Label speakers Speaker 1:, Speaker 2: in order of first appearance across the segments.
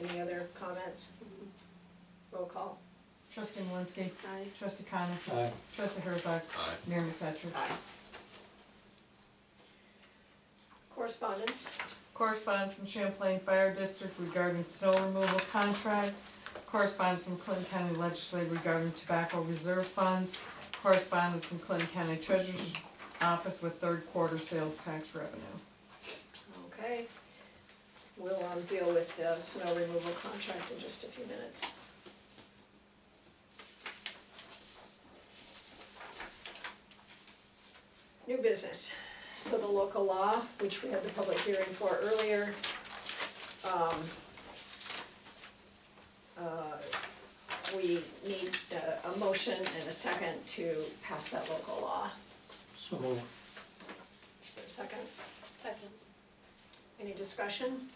Speaker 1: Any other comments? Roll call.
Speaker 2: Trustee Malinsky.
Speaker 1: Aye.
Speaker 2: Trustee Connor.
Speaker 3: Aye.
Speaker 2: Trustee Herzog.
Speaker 4: Aye.
Speaker 2: Mayor McFetrich.
Speaker 1: Aye. Correspondence?
Speaker 2: Correspondence from Champlain Fire District regarding snow removal contract. Correspondence from Clinton County Legislature regarding tobacco reserve funds. Correspondence from Clinton County Treasurer's Office with third quarter sales tax revenue.
Speaker 1: Okay. We'll um, deal with the snow removal contract in just a few minutes. New business. So the local law, which we had the public hearing for earlier, um, uh, we need uh, a motion and a second to pass that local law.
Speaker 3: So moved.
Speaker 1: Is there a second? Second. Any discussion?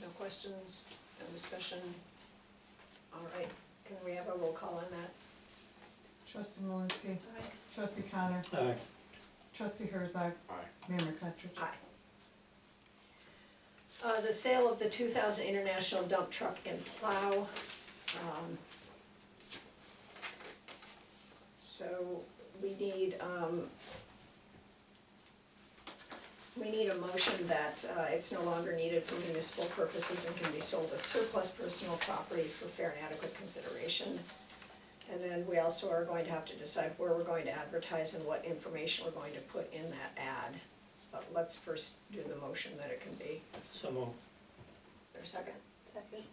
Speaker 1: No questions, no discussion? All right, can we have a roll call on that?
Speaker 2: Trustee Malinsky. Trustee Connor.
Speaker 3: Aye.
Speaker 2: Trustee Herzog.
Speaker 4: Aye.
Speaker 2: Mayor McFetrich.
Speaker 1: Aye. Uh, the sale of the two thousand international dump truck and plow. um, So we need, um, we need a motion that, uh, it's no longer needed for municipal purposes and can be sold as surplus personal property for fair and adequate consideration. And then we also are going to have to decide where we're going to advertise and what information we're going to put in that ad. But let's first do the motion that it can be.
Speaker 3: So moved.
Speaker 1: Is there a second? Second.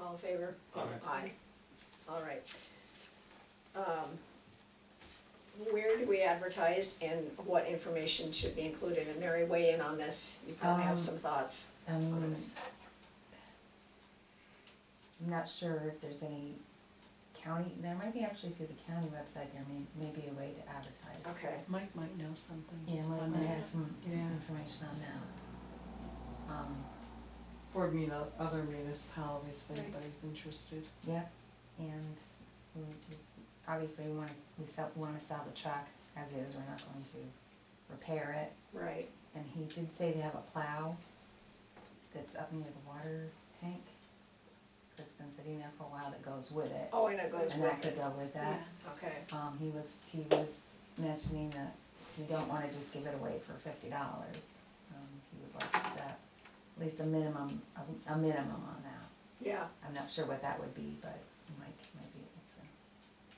Speaker 1: All in favor?
Speaker 3: Aye.
Speaker 1: Aye. All right. Um, Where do we advertise and what information should be included? And Mary, weigh in on this. You probably
Speaker 5: Um,
Speaker 1: have some thoughts on
Speaker 5: Um,
Speaker 1: this.
Speaker 5: I'm not sure if there's any county, there might be actually through the county website, there may, maybe a way to advertise.
Speaker 1: Okay,
Speaker 2: Mike might know something.
Speaker 5: Yeah, Mike
Speaker 2: On
Speaker 5: might
Speaker 2: that.
Speaker 5: have some some
Speaker 2: Yeah.
Speaker 5: information on that. Um,
Speaker 2: For me, to other municipalities, if anybody's interested.
Speaker 5: yep, and we, we- obviously we wanna, s- we sell, we wanna sell the truck as is, we're not going to repair it.
Speaker 1: right.
Speaker 5: And he did say they have a plow that's up near the water tank, that's been sitting there for a while that goes with it.
Speaker 1: Oh, and it goes
Speaker 5: And that
Speaker 1: with
Speaker 5: could
Speaker 1: it.
Speaker 5: go with that.
Speaker 1: Okay,
Speaker 5: Um, he was, he was mentioning that we don't wanna just give it away for fifty dollars. Um, he would like to set at least a minimum, a, a minimum on that.
Speaker 1: yeah.
Speaker 5: I'm not sure what that would be, but Mike might be able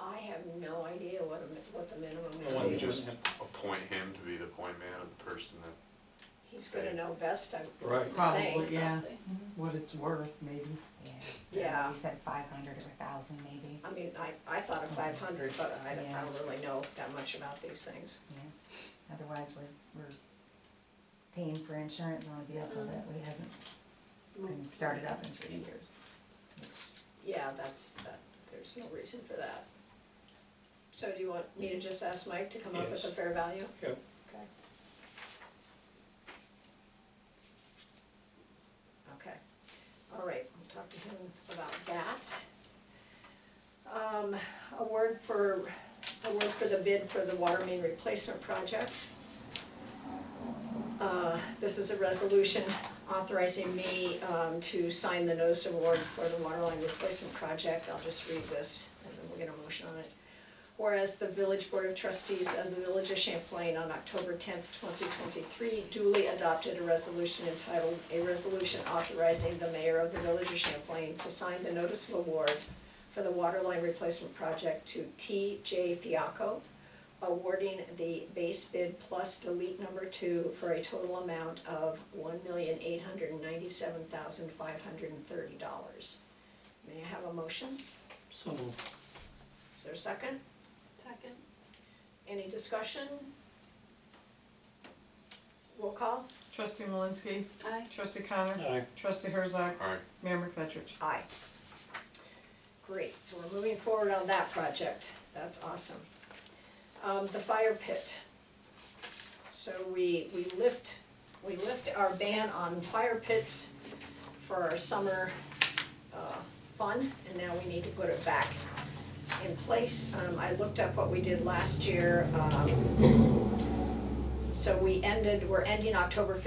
Speaker 1: I have no idea what a, mi- what the minimum
Speaker 3: I
Speaker 1: is.
Speaker 3: wanted to
Speaker 4: Just
Speaker 3: have-
Speaker 4: appoint him to be the point man of the person that,
Speaker 1: He's gonna know best, I,
Speaker 3: Right.
Speaker 1: Thank
Speaker 2: Probably, yeah,
Speaker 5: to.
Speaker 2: what it's worth, maybe.
Speaker 5: Yeah.
Speaker 1: Yeah.
Speaker 5: He said five hundred or a thousand maybe,
Speaker 1: I mean, I, I thought of five hundred, but I, I
Speaker 5: Yeah.
Speaker 1: don't really know that much about these things.
Speaker 5: yeah. Otherwise, we're, we're paying for insurance on a vehicle that we hasn't, s-
Speaker 1: Mm-hmm.
Speaker 5: been started up in three years.
Speaker 1: Yeah, that's, that, there's no reason for that. So do you want me to just ask Mike to come up with a
Speaker 3: Yes.
Speaker 1: fair value?
Speaker 3: Yep.
Speaker 1: Okay. Okay, all right, we'll talk to him about that. Um, a word for, a word for the bid for the water main replacement project. Uh, this is a resolution authorizing me um, to sign the notice of award for the waterline replacement project. I'll just read this and then we'll get a motion on it. Whereas the Village Board of Trustees of the Village of Champlain on October tenth, twenty twenty-three duly adopted a resolution entitled, "A Resolution Authorizing the Mayor of the Village of Champlain to Sign the Notice of Award for the Waterline Replacement Project to T.J. Fiaco, awarding the base bid plus delete number two for a total amount of one million eight hundred and ninety-seven thousand five hundred and thirty dollars. May I have a motion?
Speaker 3: So moved.
Speaker 1: Is there a second? Second. Any discussion? Roll call?
Speaker 2: Trustee Malinsky.
Speaker 1: Aye.
Speaker 2: Trustee Connor.
Speaker 3: Aye.
Speaker 2: Trustee Herzog.
Speaker 4: alright,
Speaker 2: Mayor McFetrich.
Speaker 1: Aye. Great, so we're moving forward on that project, that's awesome. Um, the fire pit. So we, we lift, we lift our ban on fire pits for our summer, uh, fun, and now we need to put it back in place. Um, I looked up what we did last year, um, so we ended, we're ending October